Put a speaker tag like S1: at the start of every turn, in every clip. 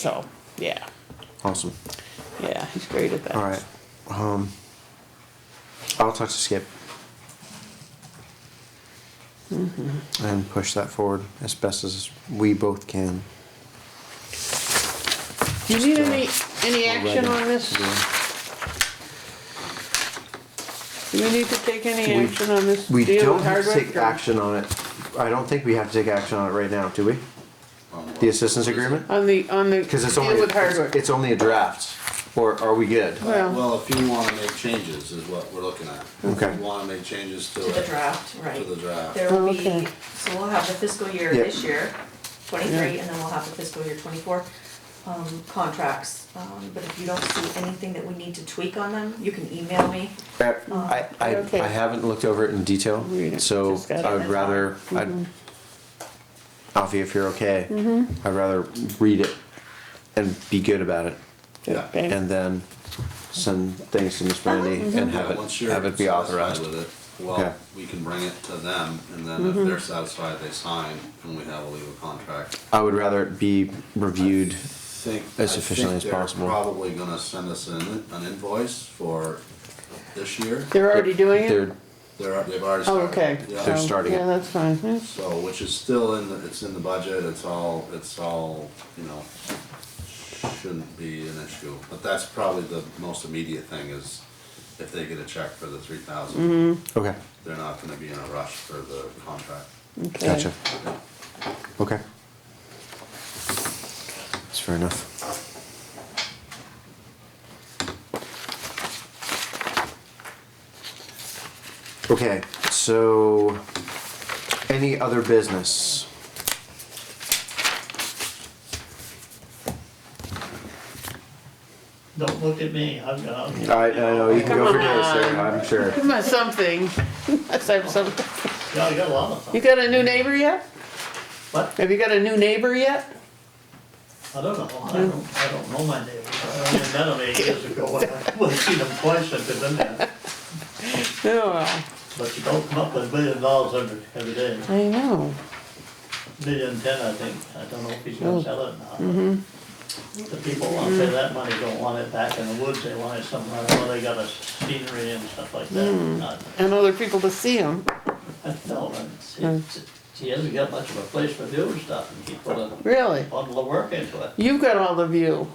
S1: So, yeah,
S2: Awesome.
S1: yeah, he's great at that.
S2: All right. Um, I'll talk to Skip
S1: Mm-hmm.
S2: and push that forward as best as we both can.
S1: Do you need any,
S2: uh,
S1: any action
S2: Alrighty.
S1: on this?
S2: Yeah.
S1: Do we need to take any
S2: We-
S1: action on this
S2: We
S1: deal
S2: don't
S1: with
S2: have to
S1: Hardwick?
S2: take
S1: or-
S2: action on it. I don't think we have to take action on it right now, do we? The assistance agreement?
S1: On the, on the
S2: Because it's
S1: deal
S2: only
S1: with
S2: it's,
S1: Hardwick?
S2: it's only a draft. Or are we good?
S1: Well-
S3: Well, if you wanna make changes is what we're looking at.
S2: Okay.
S3: If you wanna make changes to
S4: To the
S3: it,
S4: draft,
S3: to
S4: right.
S3: the draft.
S4: There will
S1: Okay.
S4: be, so we'll have the fiscal year
S2: Yeah.
S4: this year, twenty-three, and then we'll have the fiscal year twenty-four, um, contracts. Um, but if you don't see anything that we need to tweak on them, you can email me.
S2: I, I,
S1: Oh, Okay.
S2: I haven't looked over it in detail,
S1: Read it.
S2: so
S1: Just got
S2: I
S1: it. Mm-hmm.
S2: would rather, I'd, Alfie, if you're okay,
S1: Mm-hmm.
S2: I'd rather read it and be good about it,
S3: Yeah.
S1: Okay. Uh-huh, mm-hmm.
S2: and then send things to Miss Brandy and have
S3: Yeah, once
S2: it,
S3: you're
S2: have it be
S3: satisfied
S2: authorized.
S3: with it,
S2: Okay.
S3: Well, we can bring it to them, and then
S1: Mm-hmm.
S3: if they're satisfied, they sign, and we have a legal contract.
S2: I would rather it be reviewed,
S3: Think, I
S2: As efficiently
S3: think
S2: as
S3: they're
S2: possible.
S3: probably gonna send us an, an invoice for this year.
S1: They're already doing it?
S2: they're,
S3: They're, they've already
S1: Oh,
S3: started.
S1: okay.
S3: Yeah.
S2: They're
S1: So,
S2: starting it.
S1: Yeah, that's fine. Yeah.
S3: So, which is still in the, it's in the budget, it's all, it's all, you know, shouldn't be an issue. But that's probably the most immediate thing is if they get a check for the three thousand,
S2: okay,
S3: they're not gonna be in a rush for the contract.
S1: Okay.
S2: gotcha, okay. That's fair enough. Okay, so, any other business?
S5: Don't look at me, I've got.
S2: I, I know, you can go for days, sir,
S1: Come
S2: I'm sure.
S1: Give him something. Let's have some,
S5: Yeah, I got a lot of
S1: you
S5: them.
S1: got a new neighbor yet?
S5: What?
S1: Have you got a new neighbor yet?
S5: I don't know, I don't, I don't know my neighbors. I only met them eight years ago. I would've seen them twice if they'd been there.
S1: No, I
S5: But you don't come up with a million dollars every, every day.
S1: know.
S5: Million ten, I think. I don't know if he's gonna sell it or not. The people who want to pay that money don't want it back in the woods. They want it somewhere where they got a scenery and stuff like that. Not-
S1: And other people to see him.
S5: I know, and it's- he hasn't got much of a place for doing stuff and he put a
S1: Really?
S5: bundle of work into it.
S1: You've got all the view.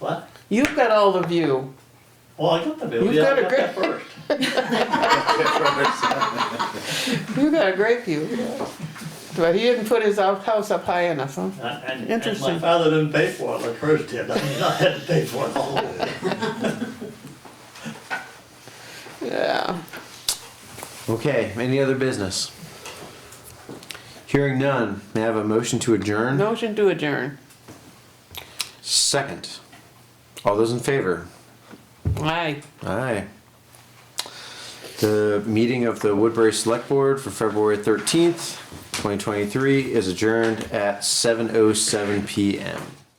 S5: What?
S1: You've got all the view.
S5: Well, I got the bill,
S1: You've
S5: yeah,
S1: got a
S5: I got that first.
S1: You got a great view. But he didn't put his out- house up high enough, huh?
S5: And, and
S1: Interesting.
S5: my father didn't pay for it, the first did, I mean, I had to pay for it all.
S1: Yeah.
S2: Okay, any other business? Hearing none, may I have a motion to adjourn?
S1: Motion to adjourn.
S2: Second. All those in favor?
S1: Aye.
S2: Aye. The meeting of the Woodbury Select Board for February thirteenth, twenty twenty-three is adjourned at seven oh seven PM.